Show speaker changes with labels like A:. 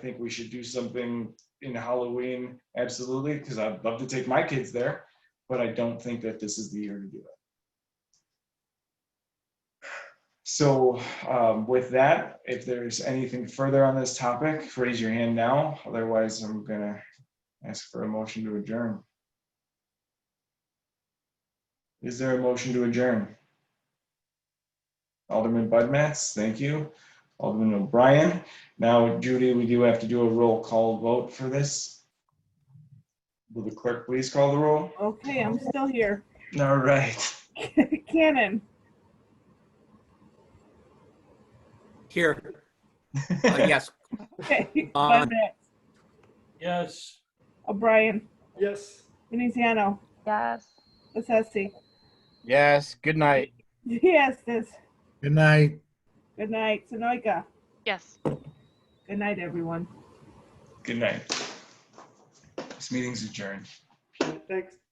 A: think we should do something in Halloween, absolutely, because I'd love to take my kids there, but I don't think that this is the year to do it. So um, with that, if there's anything further on this topic, raise your hand now. Otherwise, I'm gonna ask for a motion to adjourn. Is there a motion to adjourn? Alderman Bud Matts, thank you. Alderman O'Brien. Now, Judy, we do have to do a roll call vote for this. Will the clerk please call the roll?
B: Okay, I'm still here.
A: All right.
B: Cannon,
C: Here. Uh, Yes,
B: okay, Oh,
C: Uh,
B: Bud Matts,
D: Yes.
B: O'Brien,
D: Yes.
B: Veneziano,
E: Yes.
B: Bessesi,
F: Yes. Good night.
B: Diastis,
G: Good night.
B: good night, Sonoika,
E: Yes.
B: good night, everyone.
A: Good night. This meeting's adjourned.
D: Thanks.